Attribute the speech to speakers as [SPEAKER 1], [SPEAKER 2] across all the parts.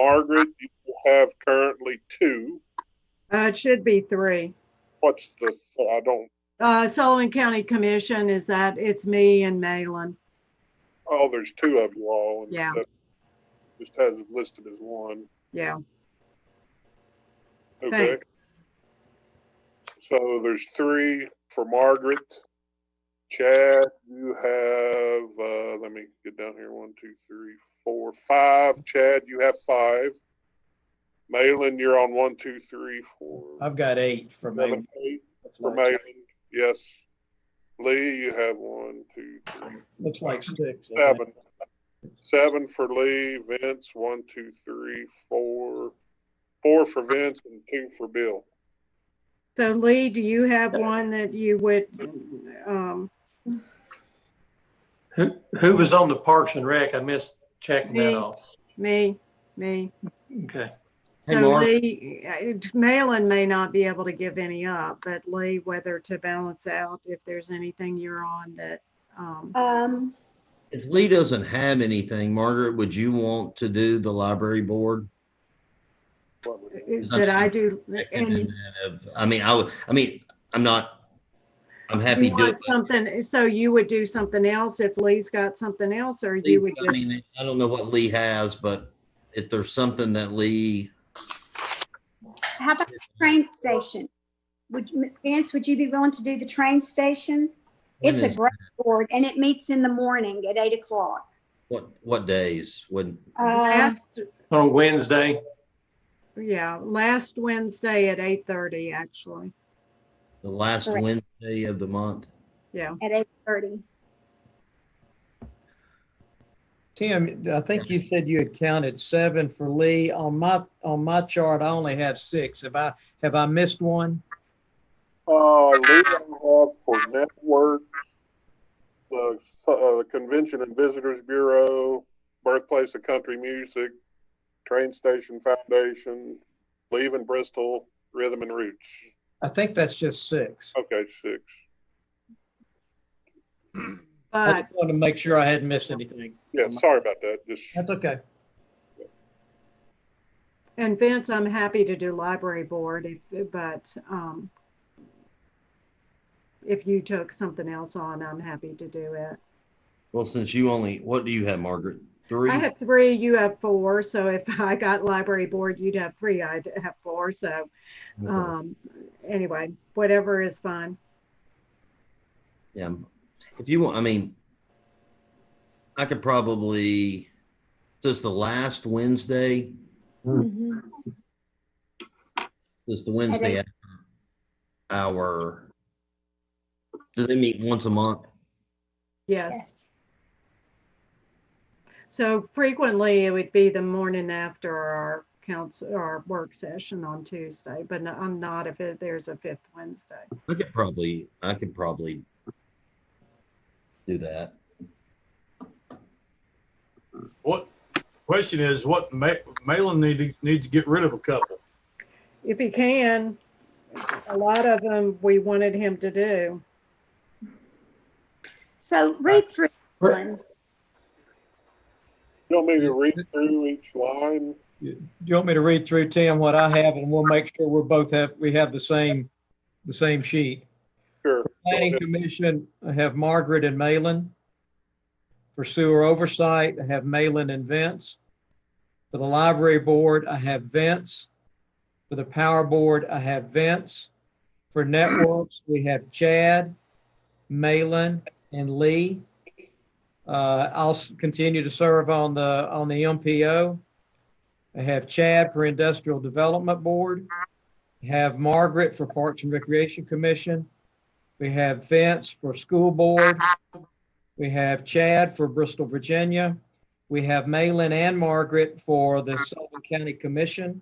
[SPEAKER 1] Margaret, you have currently two.
[SPEAKER 2] Uh, it should be three.
[SPEAKER 1] What's the, th- I don't,
[SPEAKER 2] Uh, Sullivan County Commission is that, it's me and Malin.
[SPEAKER 1] oh, there's two of you all. and
[SPEAKER 2] Yeah.
[SPEAKER 1] that Just has it listed as one.
[SPEAKER 2] Yeah,
[SPEAKER 1] Okay. So there's three for Margaret. Chad, you have, uh, let me get down here, one, two, three, four, five. Chad, you have five. Malin, you're on one, two, three, four,
[SPEAKER 3] I've got eight from
[SPEAKER 1] seven,
[SPEAKER 3] Megan.
[SPEAKER 1] eight for Malin. Yes. Lee, you have one, two, three,
[SPEAKER 3] Looks like six. I think.
[SPEAKER 1] seven. Seven for Lee, Vince, one, two, three, four, four for Vince and two for Bill.
[SPEAKER 2] so Lee, do you have one that you would, um,
[SPEAKER 4] Who, who was on the Parks and Rec? I missed checking that
[SPEAKER 2] Me.
[SPEAKER 4] off.
[SPEAKER 2] me, me?
[SPEAKER 4] Okay.
[SPEAKER 3] Hey,
[SPEAKER 2] So
[SPEAKER 3] Laura.
[SPEAKER 2] Lee, uh, Malin may not be able to give any up, but Lee, whether to balance out if there's anything you're on that, um,
[SPEAKER 5] Um,
[SPEAKER 6] If Lee doesn't have anything, Margaret, would you want to do the library board?
[SPEAKER 1] What was it?
[SPEAKER 2] that I do. And
[SPEAKER 6] I mean, I would, I mean, I'm not, I'm happy
[SPEAKER 2] you
[SPEAKER 6] doing.
[SPEAKER 2] want something, so you would do something else if Lee's got something else, or
[SPEAKER 6] Lee-
[SPEAKER 2] you would
[SPEAKER 6] I
[SPEAKER 2] just,
[SPEAKER 6] mean, I don't know what Lee has, but if there's something that Lee,
[SPEAKER 5] how about the train station? Would, you- Vance, would you be willing to do the train station? It's a
[SPEAKER 6] When is
[SPEAKER 5] great board and it meets in the morning at eight o'clock.
[SPEAKER 6] what, what days, when,
[SPEAKER 5] Uh,
[SPEAKER 2] last,
[SPEAKER 4] On Wednesday,
[SPEAKER 2] yeah, last Wednesday at eight thirty, actually.
[SPEAKER 6] the last
[SPEAKER 5] Correct.
[SPEAKER 6] Wednesday of the month?
[SPEAKER 2] Yeah,
[SPEAKER 5] at eight thirty.
[SPEAKER 3] Tim, I think you said you had counted seven for Lee. On my, on my chart, I only have six. Have I, have I missed one?
[SPEAKER 1] Uh, Lee, I have for Network, the uh, Convention and Visitors Bureau, Birthplace of Country Music, Train Station Foundation, Leaving Bristol, Rhythm and Roots.
[SPEAKER 3] I think that's just six.
[SPEAKER 1] Okay, six.
[SPEAKER 3] I
[SPEAKER 2] but
[SPEAKER 3] just wanted to make sure I hadn't missed anything.
[SPEAKER 1] Yeah, sorry about that. Just
[SPEAKER 3] That's okay.
[SPEAKER 2] And Vince, I'm happy to do library board if, but, um, if you took something else on, I'm happy to do it.
[SPEAKER 6] Well, since you only, what do you have, Margaret? Three?
[SPEAKER 2] I have three, you have four, so if I got library board, you'd have three, I'd have four, so,
[SPEAKER 6] Uh-huh.
[SPEAKER 2] um, anyway, whatever is fine.
[SPEAKER 6] Yeah. If you want, I mean, I could probably, does the last Wednesday, does the Wednesday after our, do they meet once a month?
[SPEAKER 2] Yes, so frequently it would be the morning after our council, our work session on Tuesday, but no- I'm not if it- there's a fifth Wednesday.
[SPEAKER 6] I could probably, I could probably do that.
[SPEAKER 7] What, question is, what, Ma- Malin need to- needs to get rid of a couple.
[SPEAKER 2] If he can, a lot of them we wanted him to do.
[SPEAKER 5] So read through the ones.
[SPEAKER 1] you want me to read through each line?
[SPEAKER 3] Do you want me to read through, Tim, what I have, and we'll make sure we're both have, we have the same, the same sheet?
[SPEAKER 1] Sure.
[SPEAKER 3] For
[SPEAKER 1] Go
[SPEAKER 3] Planning
[SPEAKER 1] ahead.
[SPEAKER 3] Commission, I have Margaret and Malin. For Sewer Oversight, I have Malin and Vince. For the Library Board, I have Vince. For the Power Board, I have Vince. For Networks, we have Chad, Malin, and Lee. Uh, I'll s- continue to serve on the, on the MPO. I have Chad for Industrial Development Board. I Have Margaret for Parks and Recreation Commission. We have Vince for school board. We have Chad for Bristol, Virginia. We have Malin and Margaret for the Sullivan County Commission.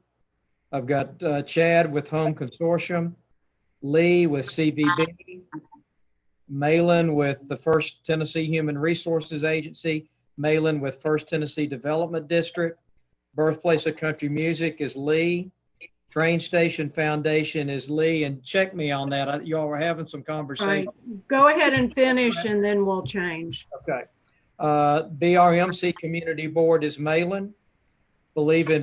[SPEAKER 3] I've got uh, Chad with Home Consortium, Lee with CVB, Malin with the First Tennessee Human Resources Agency, Malin with First Tennessee Development District. Birthplace of Country Music is Lee. Train Station Foundation is Lee, and check me on that. I- Y'all were having some
[SPEAKER 2] Right,
[SPEAKER 3] conversation.
[SPEAKER 2] go ahead and finish and then we'll change.
[SPEAKER 3] Okay. Uh, BRMC Community Board is Malin. Believe in